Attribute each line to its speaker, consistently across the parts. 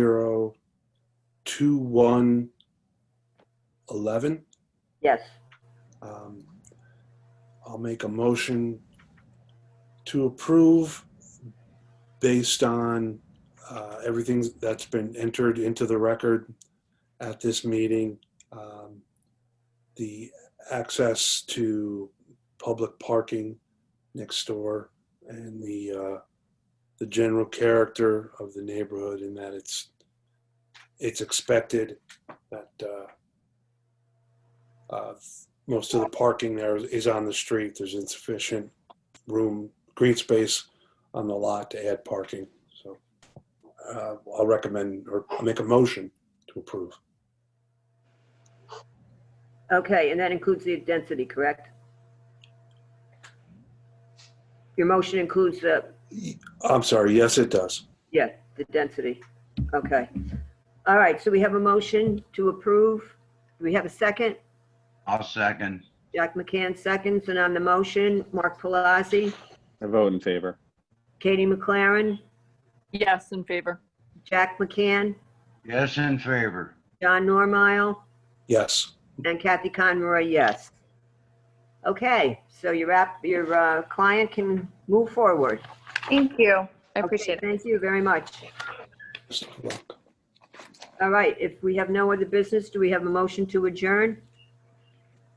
Speaker 1: zero two one eleven.
Speaker 2: Yes,
Speaker 1: Um, I'll make a motion to approve based on uh, everything that's been entered into the record at this meeting. um, The access to public parking next door and the, uh, the general character of the neighborhood in that it's, it's expected that uh, uh, most of the parking there is on the street. There's insufficient room, green space on the lot to add parking. So uh, I'll recommend or I'll make a motion to approve.
Speaker 2: okay, and that includes the density, correct? Your motion includes the,
Speaker 1: I'm sorry, yes, it does.
Speaker 2: yeah, the density, okay. All right, so we have a motion to approve. Do we have a second?
Speaker 3: I'll second.
Speaker 2: Jack McCann seconds, and on the motion, Mark Pelosi,
Speaker 4: I vote in favor.
Speaker 2: Katie McLaren,
Speaker 5: Yes, in favor.
Speaker 2: Jack McCann,
Speaker 3: Yes, in favor.
Speaker 2: John Normile,
Speaker 1: Yes,
Speaker 2: and Kathy Conroy, yes. Okay, so your app, your uh, client can move forward.
Speaker 5: Thank you. I
Speaker 2: Okay,
Speaker 5: appreciate it.
Speaker 2: Thank you very much.
Speaker 1: best of luck.
Speaker 2: All right, if we have no other business, do we have a motion to adjourn?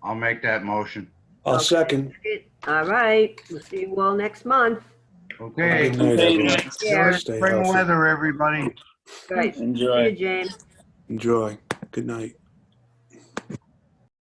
Speaker 3: I'll make that motion.
Speaker 1: I'll
Speaker 2: Okay.
Speaker 1: second.
Speaker 2: All right, we'll see you all next month.
Speaker 3: Okay.
Speaker 1: Good night, everyone.
Speaker 2: Yeah.
Speaker 1: Stay
Speaker 3: Spring
Speaker 1: healthy.
Speaker 3: weather, everybody.
Speaker 2: Right, see
Speaker 4: Enjoy.
Speaker 2: you, James.
Speaker 1: Enjoy. Good night.